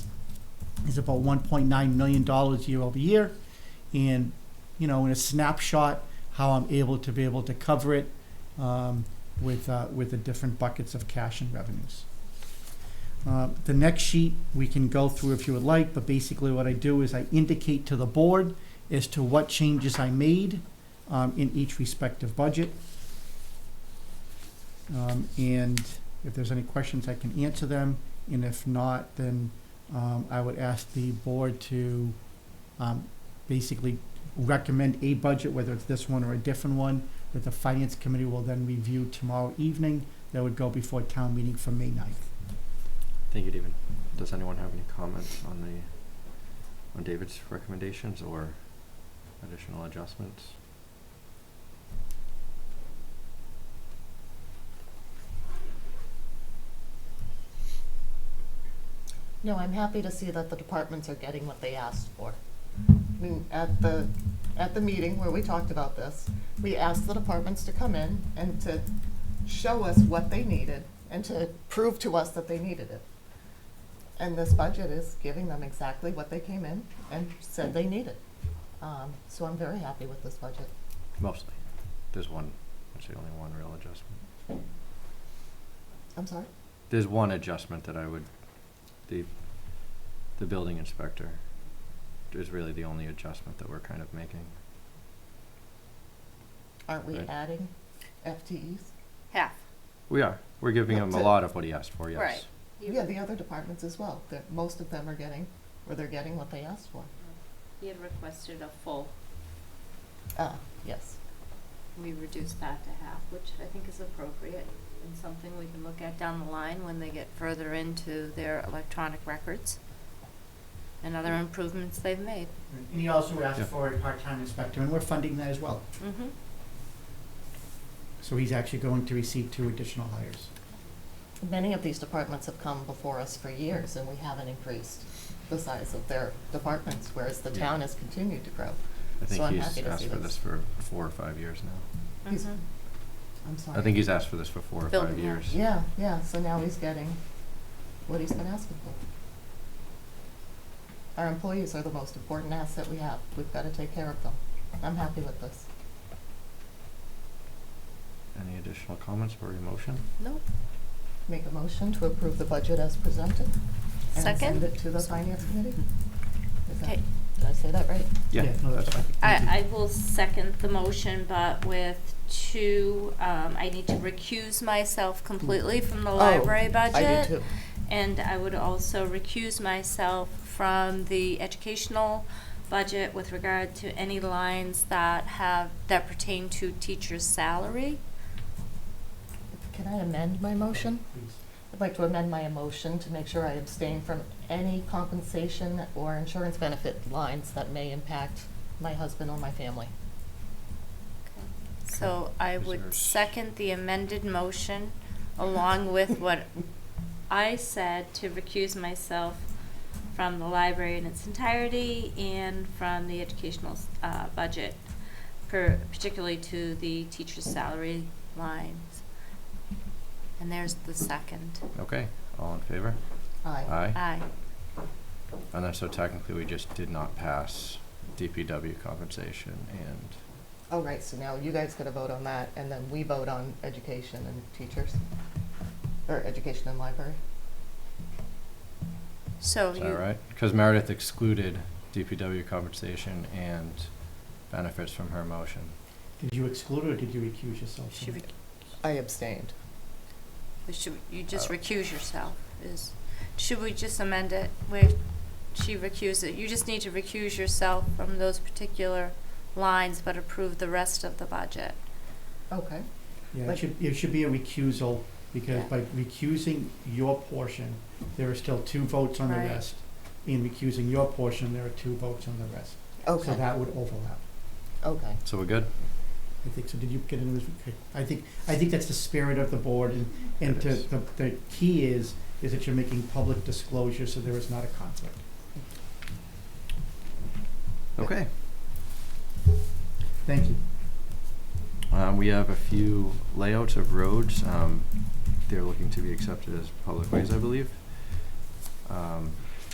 is about one point nine million dollars year over year. And, you know, in a snapshot, how I'm able to be able to cover it, um, with, uh, with the different buckets of cash and revenues. Uh, The next sheet, we can go through if you would like, but basically what I do is I indicate to the board as to what changes I made um, in each respective budget. Um, And if there's any questions, I can answer them, and if not, then um, I would ask the board to um, basically recommend a budget, whether it's this one or a different one, that the finance committee will then review tomorrow evening. That would go before town meeting for May 9th. Thank you, David. Does anyone have any comments on the, on David's recommendations or additional adjustments? No, I'm happy to see that the departments are getting what they asked for. I mean, at the, at the meeting where we talked about this, we asked the departments to come in and to show us what they needed and to prove to us that they needed it. And this budget is giving them exactly what they came in and said they needed. Um, so I'm very happy with this budget. Mostly. There's one, actually only one real adjustment. I'm sorry? There's one adjustment that I would, the, the building inspector is really the only adjustment that we're kind of making. Aren't we Right. adding FTEs? Half. We are. We're giving him That's a it. lot of what he asked for, yes. Right. You- Yeah, the other departments as well, that most of them are getting, or they're getting what they asked for. He had requested a full. Ah, yes. We reduced that to half, which I think is appropriate and something we can look at down the line when they get further into their electronic records and other improvements they've made. And he also asked Yeah. for a part-time inspector, and we're funding that as well. Mm-hmm. So he's actually going to receive two additional hires. Many of these departments have come before us for years, and we haven't increased the size of their departments, whereas the town has continued to grow. I think So I'm he's happy to asked see for this. this for four or five years now. He's- Mm-hmm. I'm sorry. I think he's asked for this for four or five Building, yeah. years. Yeah, yeah, so now he's getting what he's been asking for. Our employees are the most important asset we have. We've got to take care of them. I'm happy with this. Any additional comments or emotion? Nope. Make a motion to approve the budget as presented. And send Second? it to the finance committee? Is that- Okay. Did I say that right? no, that's fine. Thank you. I, I will second the motion, but with two, um, I need to recuse myself completely from the library budget. Oh, I do too. And I would also recuse myself from the educational budget with regard to any lines that have, that pertain to teacher's salary. Can I amend my motion? Please. I'd like to amend my motion to make sure I abstain from any compensation or insurance benefit lines that may impact my husband or my family. So I Is there- would second the amended motion along with what I said to recuse myself from the library in its entirety and from the educational, uh, budget, per, particularly to the teacher's salary lines. And there's the second. Okay, all in favor? Aye. Aye. Aye. And then so technically we just did not pass DPW compensation and, All right, so now you guys got to vote on that, and then we vote on education and teachers, or education and library. So is you. that right? Because Meredith excluded DPW compensation and benefits from her motion. Did you exclude or did you recuse yourself? She from it? rec- I abstained. we should, you just Oh. recuse yourself is, should we just amend it where she recuses, you just need to recuse yourself from those particular lines, but approve the rest of the budget. Okay. Yeah, it Like- should, it should be a recusal, because Yeah. by recusing your portion, there are still two votes on the Right. rest. In recusing your portion, there are two votes on the rest. So Okay, that would overlap. okay. So we're good? I think, so did you get into this? Okay. I think, I think that's the spirit of the board, and, and It to, is. the, the key is, is that you're making public disclosure, so there is not a conflict. Okay. Thank you. Um, we have a few layouts of roads. Um, they're looking to be accepted as public ways, I believe. Um,